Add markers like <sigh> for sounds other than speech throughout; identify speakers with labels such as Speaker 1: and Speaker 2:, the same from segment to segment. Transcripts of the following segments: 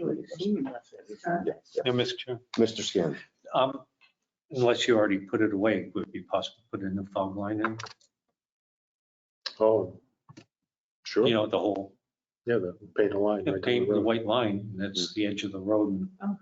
Speaker 1: really seen nothing.
Speaker 2: Now, Mr. Chair,
Speaker 3: Mr. Scanlon.
Speaker 2: um, unless you already put it away, would it be possible to put a new fog line in?
Speaker 4: Oh, sure.
Speaker 2: You
Speaker 4: Yeah,
Speaker 2: know, the whole,
Speaker 4: the paint a line.
Speaker 2: the
Speaker 4: right down
Speaker 2: paint,
Speaker 4: the
Speaker 2: the
Speaker 4: road. Mm-hmm.
Speaker 2: white line, that's the edge of the road. and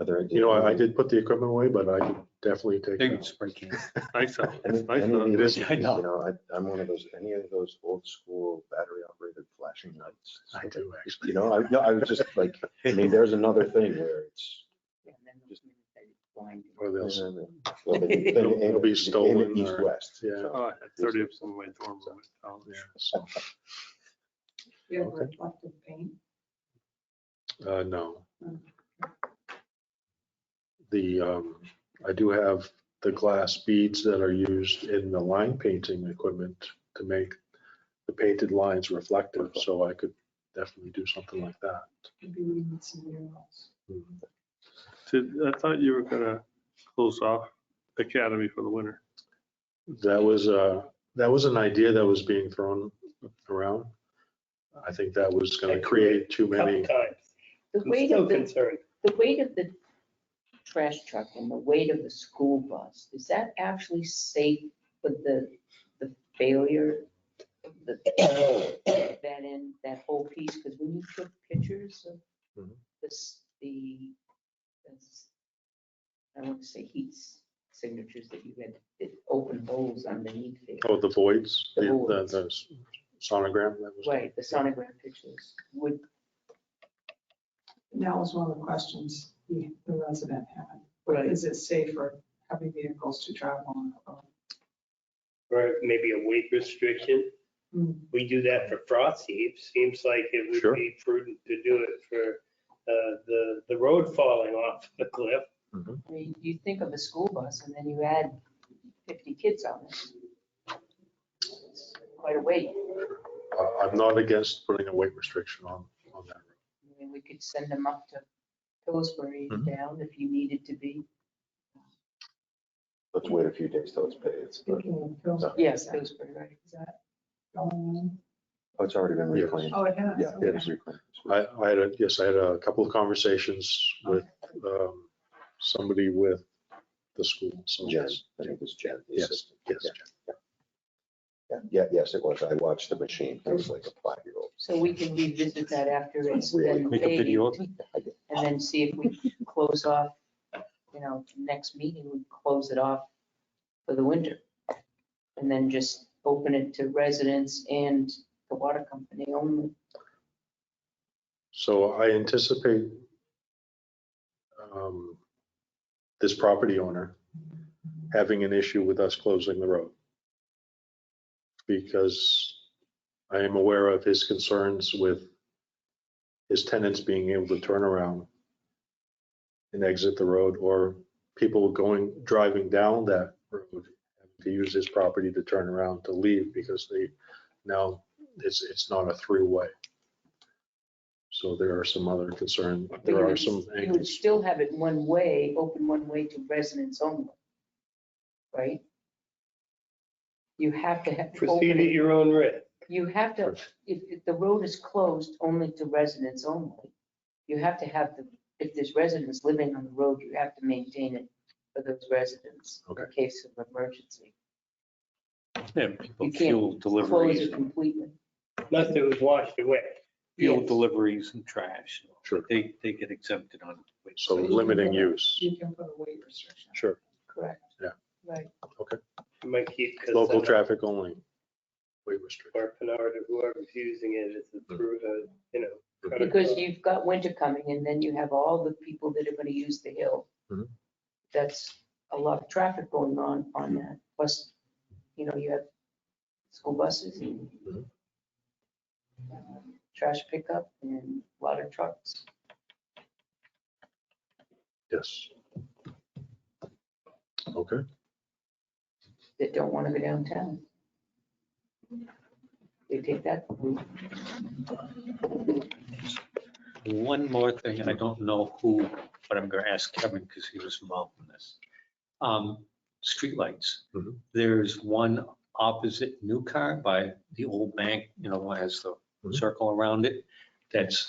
Speaker 3: are there any-
Speaker 4: You know, I I did put the equipment away, but I could definitely take.
Speaker 2: They would
Speaker 4: that.
Speaker 2: spray can.
Speaker 4: I thought,
Speaker 3: Any
Speaker 4: I
Speaker 3: any of
Speaker 4: thought
Speaker 3: these,
Speaker 4: this,
Speaker 3: you
Speaker 2: I know.
Speaker 3: know, I- I'm one of those, any of those old school battery operated flashing lights.
Speaker 4: I do actually.
Speaker 3: You know, I, no, I was just like, I mean, there's another thing where it's.
Speaker 4: Or they'll, s-
Speaker 3: well,
Speaker 4: <laughs>
Speaker 3: they- they aim
Speaker 4: They'll- they'll be
Speaker 3: it- they aim it
Speaker 4: stolen
Speaker 3: East
Speaker 4: or-
Speaker 3: west.
Speaker 4: yeah.
Speaker 5: <laughs> Oh, I had Thirty of some of my dorm room in
Speaker 4: yeah,
Speaker 5: college.
Speaker 4: so,
Speaker 1: You have
Speaker 3: Okay.
Speaker 1: reflective paint.
Speaker 4: uh, No.
Speaker 1: Mm.
Speaker 4: The, um, I do have the glass beads that are used in the line painting equipment to make the painted lines reflective, so I could definitely do something like that.
Speaker 1: Maybe we need some murals.
Speaker 5: Did, I thought you were gonna close off academy for the winter.
Speaker 4: That was a, that was an idea that was being thrown around. I think that was gonna create too many,
Speaker 6: The weight of the, the weight of the trash truck and the weight of the school bus, is that actually safe with the, the failure? of the- <coughs> That in, that whole piece, because when you took pictures of
Speaker 4: Mhm.
Speaker 6: this, the, this- I want to say heat signatures that you had, that open holes underneath there.
Speaker 4: oh, the voids, the,
Speaker 6: The
Speaker 4: the
Speaker 6: voids.
Speaker 4: the sonogram that was.
Speaker 6: Right, the sonogram pictures, would,
Speaker 1: And that was one of the questions the the resident had.
Speaker 6: Right.
Speaker 1: Is it safe for heavy vehicles to drive on? the road?
Speaker 7: or maybe a weight restriction.
Speaker 1: Hmm.
Speaker 7: We do that for frost heaves. Seems like it
Speaker 4: Sure.
Speaker 7: would be prudent to do it for uh, the, the road falling off the cliff.
Speaker 6: I mean, you think of a school bus and then you add fifty kids on it. It's Quite a weight.
Speaker 4: Uh, I'm not against putting a weight restriction on, on that.
Speaker 6: I mean, we could send them up to Pillsbury
Speaker 2: Mm-hmm.
Speaker 6: and
Speaker 4: Mhm.
Speaker 6: down if you needed to be.
Speaker 3: Let's wait a few days till it's paid. It's, oh,
Speaker 1: Speaking of films,
Speaker 6: Yes, Pillsbury, right.
Speaker 1: is that going
Speaker 3: it's already been
Speaker 4: Yes.
Speaker 3: reclaimed.
Speaker 1: on? Oh, it has.
Speaker 3: Yeah,
Speaker 1: okay.
Speaker 3: it is reclaimed.
Speaker 4: I, I had a, yes, I had a couple of conversations with, um, somebody with the school, so
Speaker 3: Jen,
Speaker 4: yes,
Speaker 3: I think it's Jen. the
Speaker 4: Yes,
Speaker 3: assistant.
Speaker 4: yes.
Speaker 3: Yeah. Yeah, Yeah, yes, it was. I watched the machine. It was like a five-year-old.
Speaker 6: So we can revisit that after it's
Speaker 3: Really?
Speaker 6: been
Speaker 2: Make a video of
Speaker 6: paid
Speaker 2: it.
Speaker 6: and then see if we close off, you know, next meeting, we close it off for the winter. And then just open it to residents and the water company only.
Speaker 4: So I anticipate um, this property owner having an issue with us closing the road. Because I am aware of his concerns with his tenants being able to turn around and exit the road, or people going, driving down that road to use his property to turn around to leave because they, now it's, it's not a three-way. So there are some other concern,
Speaker 6: But you
Speaker 4: there are
Speaker 6: would-
Speaker 4: some
Speaker 6: You would
Speaker 4: angles.
Speaker 6: still have it one way, open one way to residents only, right? You have to have.
Speaker 7: Proceed at
Speaker 6: open-
Speaker 7: your own risk.
Speaker 6: You have to, if, if the road is closed only to residents only, you have to have the, if there's residents living on the road, you have to maintain it for those residents. In
Speaker 4: Okay.
Speaker 6: case of emergency.
Speaker 2: Yeah, people
Speaker 6: You can't
Speaker 2: fuel
Speaker 6: Close
Speaker 2: deliveries,
Speaker 6: it completely.
Speaker 7: Unless it was washed away.
Speaker 2: fuel
Speaker 6: Yes.
Speaker 2: deliveries and trash.
Speaker 4: Sure.
Speaker 2: They, they get exempted on. weight.
Speaker 4: So
Speaker 1: But you can
Speaker 4: limiting
Speaker 1: put a-
Speaker 4: use,
Speaker 1: You can put a weight restriction.
Speaker 4: sure,
Speaker 6: Correct.
Speaker 4: Yeah.
Speaker 6: Right.
Speaker 7: You might keep. 'cause,
Speaker 4: local
Speaker 7: uh,
Speaker 4: traffic only. Weight restriction,
Speaker 7: Or Pinard or whoever's using it, it's
Speaker 4: Hmm.
Speaker 7: approved, uh, you know. kind of, uh,
Speaker 6: Because you've got winter coming and then you have all the people that are gonna use the hill.
Speaker 4: Mhm.
Speaker 6: That's a lot of traffic going on on that. Plus, you know, you have school buses and
Speaker 4: Mhm.
Speaker 6: um, trash pickup and a lot of trucks.
Speaker 4: yes. Okay,
Speaker 6: that don't want to go downtown. They take that route.
Speaker 2: One more thing, and I don't know who, but I'm going to ask Kevin because he was involved in this. Um, Streetlights.
Speaker 4: Mhm.
Speaker 2: There's one opposite New Car by the old bank, you know, has the
Speaker 4: Mhm.
Speaker 2: circle around it. that's